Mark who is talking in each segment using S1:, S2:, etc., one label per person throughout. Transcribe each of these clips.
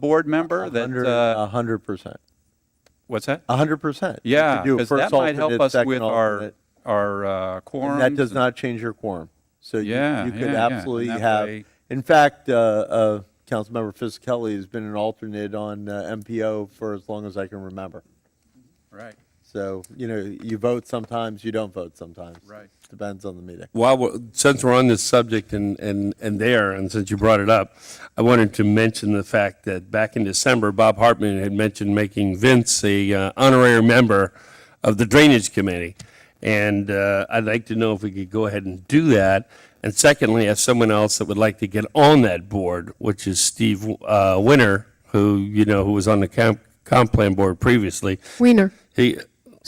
S1: board member that, uh,
S2: A hundred percent,
S1: what's that?
S2: a hundred percent. You could
S1: Yeah,
S2: do a
S1: because
S2: first
S1: that might help
S2: alternate,
S1: us
S2: second
S1: with our,
S2: alternate,
S1: our uh,
S2: and
S1: quorums.
S2: That does
S1: and-
S2: not change your quorum. So you,
S1: Yeah,
S2: you
S1: yeah,
S2: could
S1: yeah. And
S2: absolutely
S1: that
S2: have,
S1: way-
S2: in fact, uh, uh, Councilmember Fisickelli has been an alternate on uh, MPO for as long as I can remember.
S1: Right,
S2: So, you know, you vote sometimes, you don't vote sometimes.
S1: Right.
S2: Depends on the meeting.
S3: While, we're- since we're on this subject and, and, and there, and since you brought it up, I wanted to mention the fact that back in December, Bob Hartman had mentioned making Vince a uh, honorary member of the Drainage Committee. And uh, I'd like to know if we could go ahead and do that. And secondly, if someone else that would like to get on that board, which is Steve uh, Winter, who, you know, who was on the comp, comp plan board previously.
S4: Wiener.
S3: He,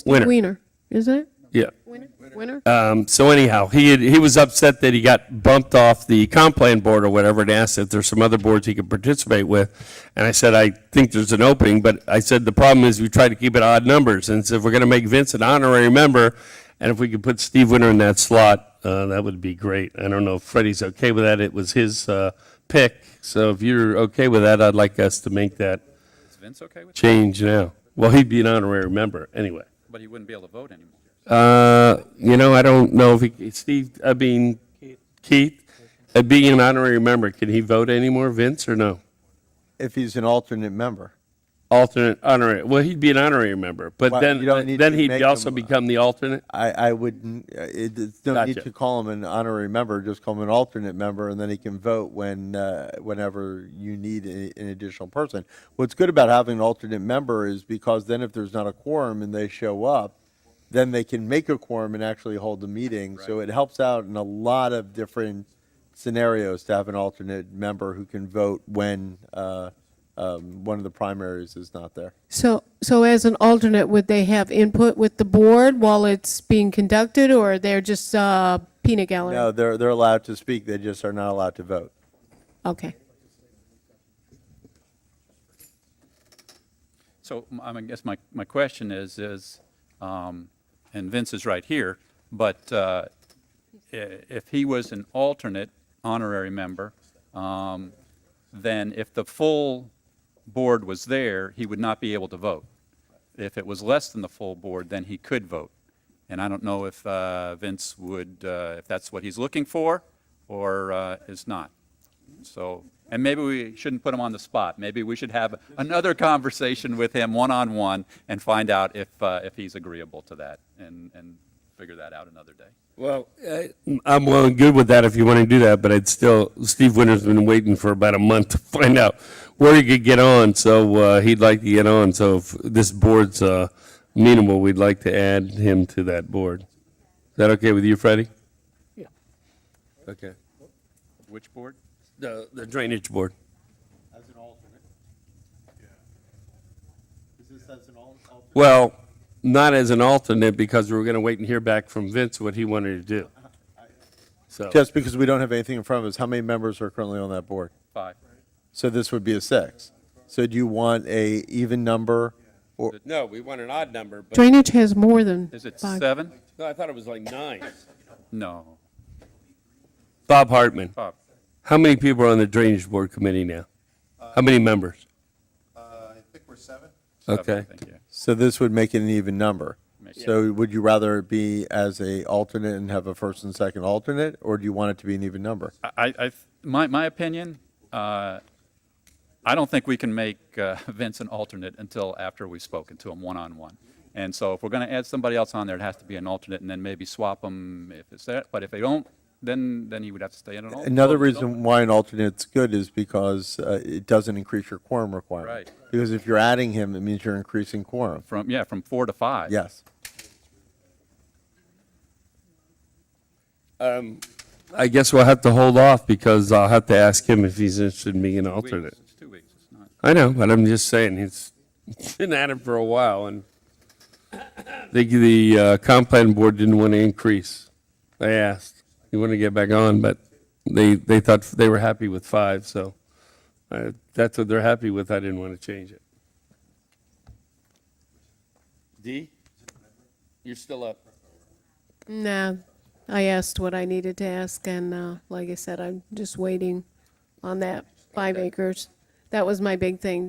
S3: Winter,
S4: Wiener, isn't it?
S3: yeah.
S4: Wiener? Wiener?
S3: Um, so anyhow, he had, he was upset that he got bumped off the comp plan board or whatever, and asked if there's some other boards he could participate with. And I said, I think there's an opening, but I said the problem is we try to keep it odd numbers, and so if we're going to make Vince an honorary member, and if we could put Steve Winter in that slot, uh, that would be great. I don't know if Freddie's okay with that. It was his uh, pick, so if you're okay with that, I'd like us to make that
S1: is Vince okay with that?
S3: change now. Well, he'd be an honorary member anyway.
S1: But he wouldn't be able to vote anymore.
S3: Uh, you know, I don't know if he, Steve, I mean, Keith, uh, being an honorary member, can he vote anymore, Vince, or no?
S2: If he's an alternate member.
S3: Alternate honorary, well, he'd be an honorary member, but
S2: Well,
S3: then,
S2: you don't need
S3: then
S2: to
S3: he'd
S2: make
S3: also
S2: him, uh,
S3: become the alternate?
S2: I, I wouldn't, uh, it, it's no need
S3: Gotcha.
S2: to call him an honorary member, just call him an alternate member, and then he can vote when, uh, whenever you need a- an additional person. What's good about having an alternate member is because then if there's not a quorum and they show up, then they can make a quorum and actually hold the meeting. So it helps out in a lot of different scenarios to have an alternate member who can vote when, uh, um, one of the primaries is not there.
S4: So, so as an alternate, would they have input with the board while it's being conducted, or they're just uh, peanut gallery?
S2: No, they're, they're allowed to speak, they just are not allowed to vote.
S4: Okay.
S1: So m- I mean, I guess my, my question is, is, um, and Vince is right here, but uh, i- if he was an alternate honorary member, um, then if the full board was there, he would not be able to vote. If it was less than the full board, then he could vote. And I don't know if uh, Vince would, uh, if that's what he's looking for or uh, is not. So, and maybe we shouldn't put him on the spot. Maybe we should have another conversation with him one-on-one and find out if, uh, if he's agreeable to that and, and figure that out another day.
S3: Well, I'm well and good with that if you want to do that, but I'd still, Steve Winter's been waiting for about a month to find out where he could get on, so uh, he'd like to get on, so if this board's uh, amenable, we'd like to add him to that board. Is that okay with you, Freddie?
S4: Yeah.
S3: Okay.
S1: Which board?
S3: The the drainage board.
S2: As an alternate? Is this as an alternate?
S3: Well, not as an alternate because we were going to wait and hear back from Vince what he wanted to do. So,
S2: Just because we don't have anything in front of us, how many members are currently on that board?
S1: Five.
S2: So this would be a six. So do you want a even number? Or,
S3: no, we want an odd number, but
S4: Drainage has more than
S1: Is it
S4: five.
S1: seven?
S3: no, I thought it was like nine.
S1: No.
S3: Bob Hartman,
S1: Bob,
S3: how many people are on the drainage board committee now? How many members?
S5: I think we're seven.
S1: seven, I
S3: Okay.
S1: think, yeah.
S2: so this would make it an even number.
S1: Make it-
S2: So would you rather it be as a alternate and have a first and second alternate, or do you want it to be an even number?
S1: I, I, my, my opinion, uh, I don't think we can make uh, Vince an alternate until after we've spoken to him one-on-one. And so if we're going to add somebody else on there, it has to be an alternate, and then maybe swap them if it's there. But if they don't, then, then he would have to stay in an alternate.
S2: Another reason why an alternate's good is because uh, it doesn't increase your quorum requirement.
S1: Right.
S2: Because if you're adding him, it means you're increasing quorum.
S1: From, yeah, from four to five.
S2: Yes.
S3: I guess we'll have to hold off because I'll have to ask him if he's interested in being an
S1: Weeks.
S3: alternate.
S1: It's two weeks, it's not.
S3: I know, but I'm just saying, he's been at it for a while, and the, the uh, comp plan board didn't want to increase. They asked, you want to get back on, but they, they thought they were happy with five, so uh, that's what they're happy with, I didn't want to change it. D, you're still up.
S4: No, I asked what I needed to ask, and uh, like I said, I'm just waiting on that five acres That was my big thing.